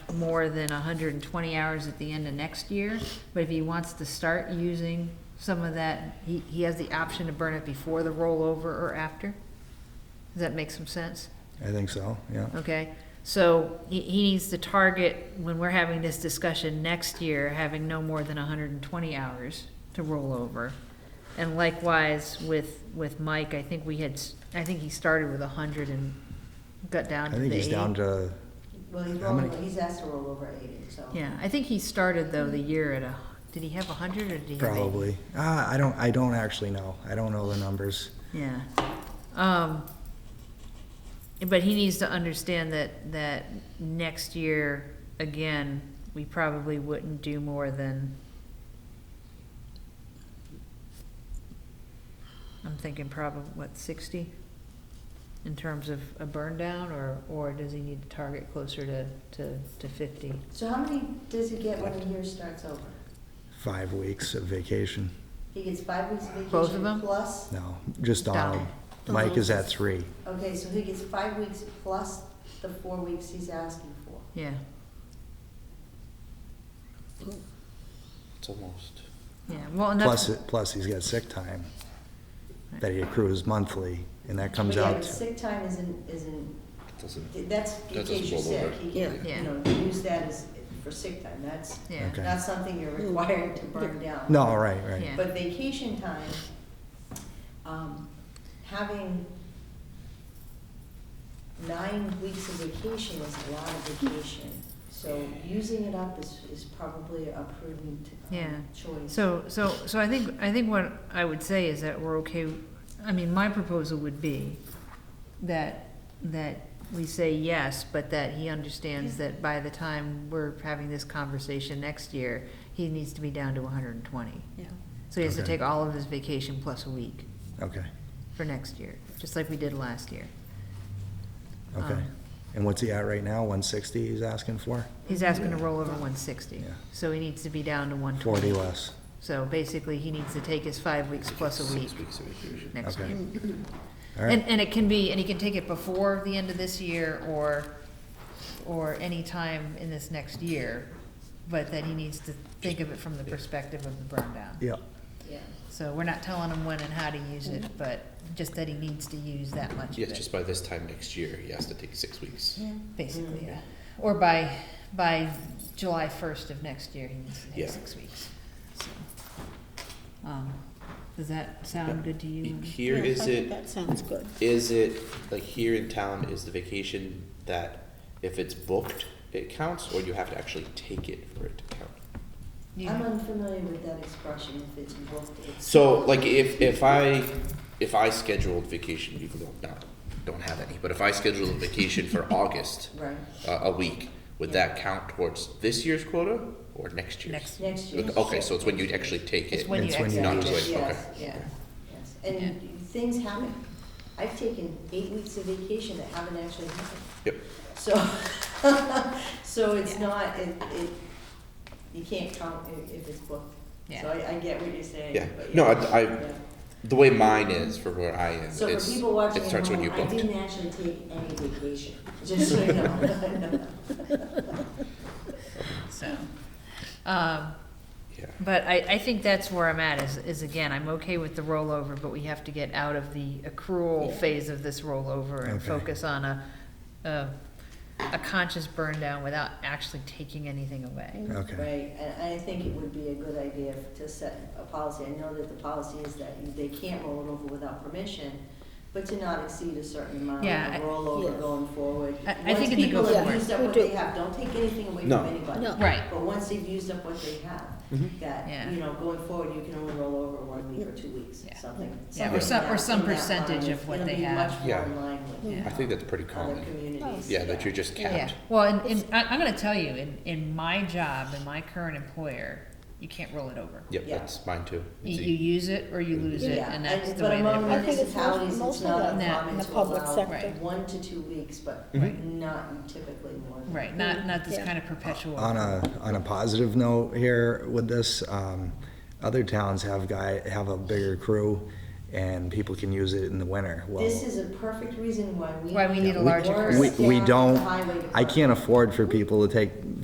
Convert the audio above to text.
more than hundred and twenty hours at the end of next year, but if he wants to start using some of that, he, he has the option to burn it before the rollover or after? Does that make some sense? I think so, yeah. Okay, so he, he needs to target, when we're having this discussion next year, having no more than hundred and twenty hours to roll over. And likewise with, with Mike, I think we had, s- I think he started with hundred and got down I to the eight. think he's down to, Well, he's How many- rolling, he's asked to roll over eighty, so. Yeah, I think he started though the year at a, did he have hundred or did he have eight? probably. Ah, I don't, I don't actually know. I don't know the numbers. Yeah. Um, but he needs to understand that, that next year, again, we probably wouldn't do more than. I'm thinking probably, what, sixty? In terms of a burn down, or, or does he need to target closer to, to, to fifty? So how many does he get when the year starts over? Five weeks of vacation. He gets five weeks of vacation. Both of them? Plus, No, just Donald. Donald. Mike is at three. okay, so he gets five weeks plus the four weeks he's asking for. Yeah, It's almost. yeah, well, and Plus, that's, it- plus he's got sick time that he accrues monthly, and that comes But yeah, out but to sick time isn't, isn't, Doesn't. that's in That doesn't case you're roll sick, over. he can, Yeah. you know, use that as, for sick time, that's yeah. Okay. not something you're required to burn down. No, right, right. Yeah. But vacation time, um, having nine weeks of vacation is a lot of vacation. So using it up is, is probably a prudent um, Yeah. choice. So, so, so I think, I think what I would say is that we're okay, I mean, my proposal would be that, that we say yes, but that he understands that by the time we're having this conversation next year, he needs to be down to hundred and twenty. Yeah. So he has to Okay. take all of his vacation plus a week Okay, for next year, just like we did last year. okay. Um, And what's he at right now? One sixty he's asking for? He's asking to roll over one sixty, Yeah. so he needs to be down to one twenty. Forty less. So basically, he needs to take his five weeks plus a week Six weeks of vacation. next Okay. year. All And, right, and it can be, and he can take it before the end of this year or, or any time in this next year, but that he needs to think of it from the perspective of the burn down. yeah, Yeah. So we're not telling him when and how to use it, but just that he needs to use that much of Yes, it, just by this time next year, he has to take six weeks. basically, yeah. Or by, by July first of next year, he needs to Yeah. take six weeks, so. Um, does that sound good to you? Here Yeah, I is think it, That sounds good. is it, like here in town is the vacation that if it's booked, it counts, or you have to actually take it for it to count? You- I'm unfamiliar with that expression, if it's booked, it's. So like if, if I, if I scheduled vacation, even though not, don't have any, but if I scheduled a vacation for August, Right, uh, a week, would that count towards this year's quota or next year's? Next, next year. Okay, so it's when you actually take it's it. when you It's when you exit. not exit. just like, okay. Yes, yeah, yes, and things happen. I've taken eight weeks of vacation that haven't actually happened. Yep. So, so it's not, it, it, you can't count if, if it's booked. Yeah. So I, I get what you're saying. Yeah. but No, I- I- yeah. The way mine is for where I am, So it's, for people watching it at starts when home, you I booked. didn't actually take any vacation, just so you know. So, um, Yeah. but I, I think that's where I'm at is, is again, I'm okay with the rollover, but we have to get out of the accrual Yeah. phase of this rollover and Okay. focus on a, a, a conscious burn down without actually taking anything away. okay, Right, and I think it would be a good idea to set a policy. I know that the policy is that you- they can't roll it over without permission, but to not exceed a certain amount Yeah, I- of rollover Yes. going forward. I- I think in the Once go people have forward. used up We what do. they have, don't take anything away from No. anybody. No. Right. But once they've used up what they have, Mhm. that, Yeah. you know, going forward, you can only roll over one week or two weeks, Yeah. something. Yeah, or something some- or in some that line. percentage of what they have. It'll be much more Yeah. in line with Yeah. I think that's pretty other common. communities. Yeah, that you're just Yeah, capped. well, and, and I, I'm gonna tell you, in, in my job, in my current employer, you can't roll it over. Yep, Yeah. that's mine too. You, It's you e- use it or you lose it, Yeah, and that's and- the way But among I that think it's municipalities, most- it's not mostly that uncommon in the to public allow sector. one to two weeks, but Mm-hmm. Mhm. not typically more. than- Right, not, not this Yeah. kind of perpetual. on a, on a positive note here with this, um, other towns have guy, have a bigger crew, and people can use it in the winter, well. This is a perfect reason why we. Why we need a we- larger more crew. We, we staff at the don't, highway I department. can't afford for people to take